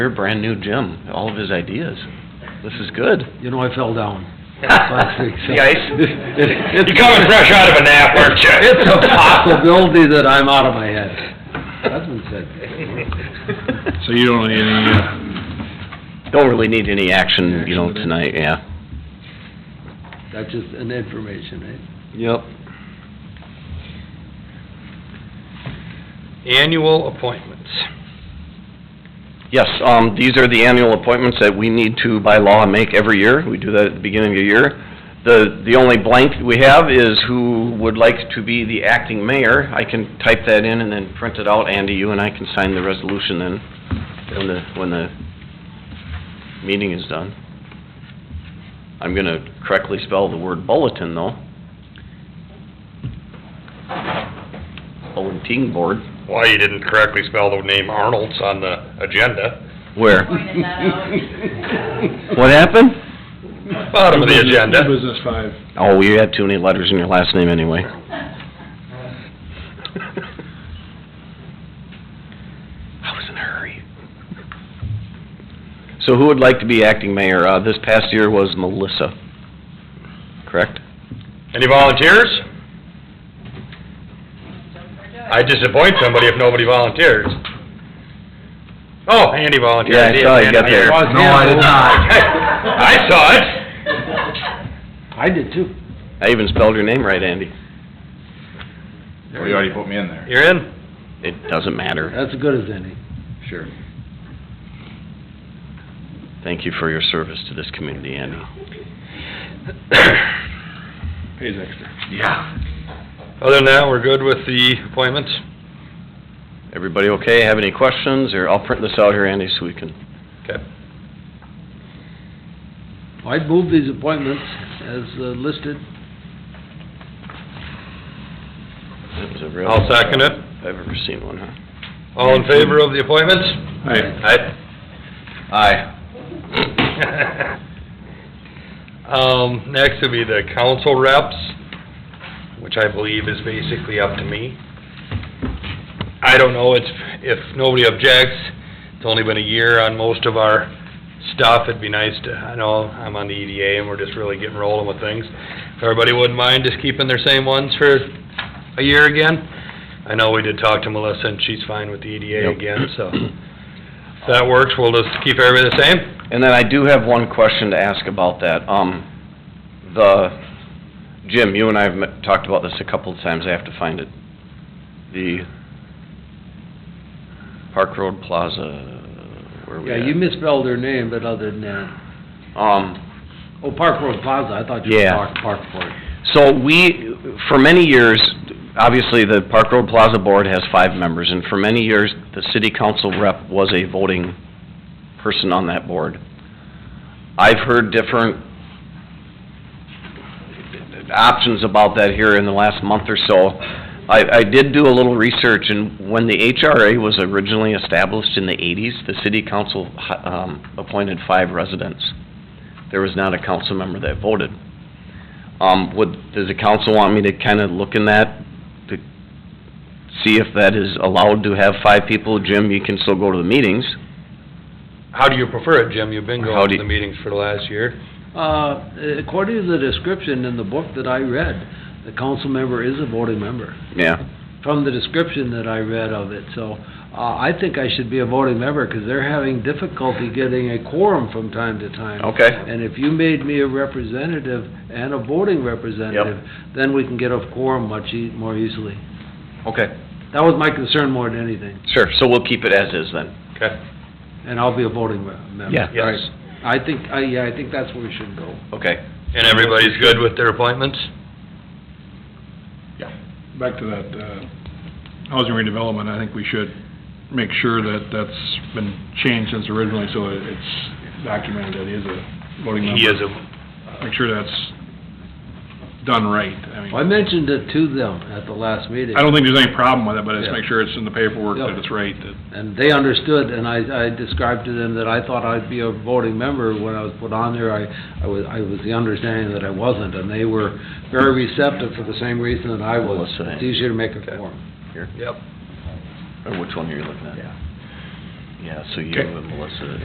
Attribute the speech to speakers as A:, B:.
A: You're a brand-new Jim, all of his ideas. This is good.
B: You know, I fell down. last week, so-
C: The ice?
B: It-
C: You coming fresh out of a nap, aren't you?
B: It's a possibility that I'm out of my head. That's been said.
D: So you don't need any, uh,
A: Don't really need any action, you know, tonight, yeah.
B: That's just an information, eh?
A: Yep.
C: Annual appointments.
A: Yes, um, these are the annual appointments that we need to by law make every year. We do that at the beginning of the year. The, the only blank we have is who would like to be the acting mayor. I can type that in and then print it out, Andy, you and I can sign the resolution then, when the, when the meeting is done. I'm gonna correctly spell the word bulletin though. Bulletin board.
C: Why you didn't correctly spell the name Arnold's on the agenda.
A: Where?
E: Pointed that
B: eh?
E: out.
A: What happened?
C: Bottom of the agenda.
D: New business five.
A: Oh, you had too many letters in your last name anyway. I was in a hurry. So who would like to be acting mayor? Uh, this past year was Melissa, correct?
C: Any volunteers?
E: Don't forget.
C: I disappoint somebody if nobody volunteers. Oh, Andy volunteered.
A: Yeah, I saw you
C: Andy
A: got there.
C: here.
A: No,
B: I did
E: not.
C: I saw it.
B: I did too.
A: I even spelled your name right, Andy.
D: Well, you already put me in there.
C: You're in?
A: It doesn't matter.
B: That's as good as any.
D: Sure.
A: Thank you for your service to this community, Andy.
D: Pays extra.
C: Yeah. Other than that, we're good with the appointments?
A: Everybody okay? Have any questions? Or I'll print this out here, Andy, so we can
C: Okay.
B: I'd move these appointments as uh, listed.
A: That was a real-
C: I'll second it.
A: I've ever seen one, huh?
C: All in favor of the appointments?
D: Alright,
C: Aye.
A: Aye.
C: Um, next would be the council reps, which I believe is basically up to me. I don't know, it's, if nobody objects, it's only been a year on most of our stuff, it'd be nice to, I know, I'm on the EDA and we're just really getting rolling with things. If everybody wouldn't mind just keeping their same ones for a year again. I know we did talk to Melissa and she's fine with the EDA
A: Yep.
C: again, so. If that works, we'll just keep everybody the same?
A: And then I do have one question to ask about that. Um, the, Jim, you and I have met- talked about this a couple of times, I have to find it. The Park Road Plaza, where we
B: Yeah,
A: at?
B: you misspelled her name, but other than that.
A: Um,
B: Oh, Park Road Plaza, I thought you were
A: Yeah.
B: Park, Park Road.
A: so we, for many years, obviously, the Park Road Plaza Board has five members, and for many years, the city council rep was a voting person on that board. I've heard different options about that here in the last month or so. I, I did do a little research, and when the HRA was originally established in the eighties, the city council, hi- um, appointed five residents. There was not a council member that voted. Um, would, does the council want me to kinda look in that, to see if that is allowed to have five people? Jim, you can still go to the meetings.
C: How do you prefer it, Jim? You've been
A: How
C: going
A: do
C: to
A: you-
C: the meetings for the last year.
B: Uh, according to the description in the book that I read, the council member is a voting member,
A: Yeah.
B: from the description that I read of it, so, uh, I think I should be a voting member, 'cause they're having difficulty getting a quorum from time to time.
A: Okay.
B: And if you made me a representative and a voting representative, then we can get a quorum much ea- more easily.
A: Okay.
B: That was my concern more than anything,
A: Sure, so we'll keep it as is then.
C: Okay,
B: and I'll be a voting re- member.
A: Yeah.
C: yes.
B: Right. I think, I, yeah, I think that's where we should go.
A: Okay.
C: And everybody's good with their appointments?
D: back to that, uh, housing redevelopment, I think we should make sure that that's been changed since originally, so it- it's documented that he is a voting member.
C: He is a,
D: Make sure that's done right, I mean.
B: I mentioned it to them at the last meeting.
D: I don't think there's any problem with it, but just
B: Yeah.
D: make sure it's in the paperwork
B: Yeah.
D: that it's right, that
B: And they understood, and I, I described to them that I thought I'd be a voting member when I was put on there. I, I was, I was the understanding that I wasn't, and they were very receptive for the same reason that I was.
A: Melissa, yeah.
B: It's easier to make a quorum.
C: yep.
A: Or which one are you looking at? Yeah, so you
D: Okay.
A: and Melissa